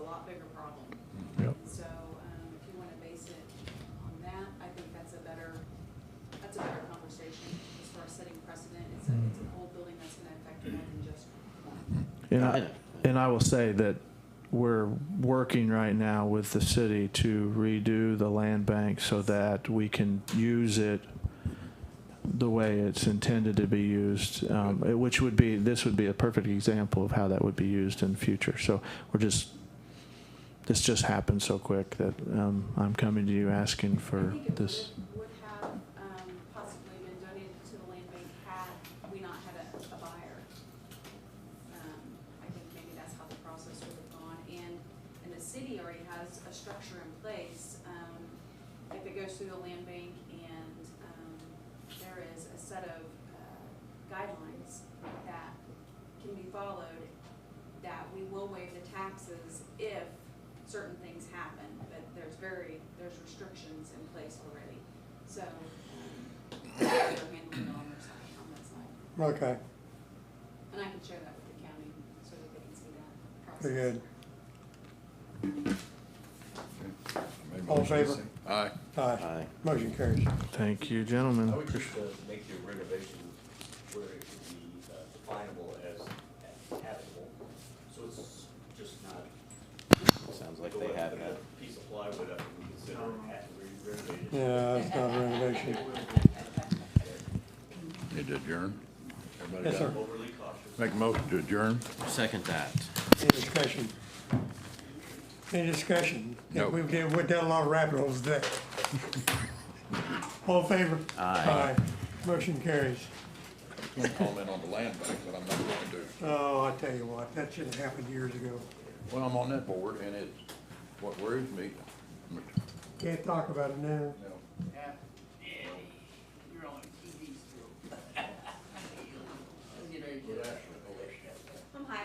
so, um, if you wanna base it on that, I think that's a better, that's a better conversation as far as setting precedent. It's a, Mm-hmm. it's an old building that's gonna affect more than just one. And I, and I will say that we're working right now with the city to redo the land bank so that we can use it the way it's intended to be used, um, it- which would be, this would be a perfect example of how that would be used in future. So we're just, this just happened so quick that, um, I'm coming to you asking for I think it this. would, would have, um, possibly been donated to the land bank had we not had a, a buyer. Um, I think maybe that's how the process would have gone, and, and the city already has a structure in place. Um, if it goes through the land bank and, um, there is a set of, uh, guidelines that can be followed, that we will waive the taxes if certain things happen, but there's very, there's restrictions in place already. So, um, they're handling it on their side, on that side. Okay, And I can share that with the county so that they can see that process. very good. Made All in motion, favor? say- Aye. Aye. Motion carries. Thank you, I gentlemen. would just uh, make the renovation where it could be uh, definable as habitable, so it's just not. Sounds go like they up have and that. a Piece of plywood up and we consider it half renovated. Yeah, that's not renovation. Need to adjourn? Everybody Yes, got sir. it? Overly cautious. Make a motion to adjourn? Second that. Any discussion? Any discussion? No. We've did, we've done a lot of rabbit holes today. All in favor? Aye. Motion carries. I'm gonna comment on the land bank, but I'm not going to. Oh, I tell you what, that should have happened years ago. Well, I'm on that board, and it's, what worries me, Can't talk about it now. No.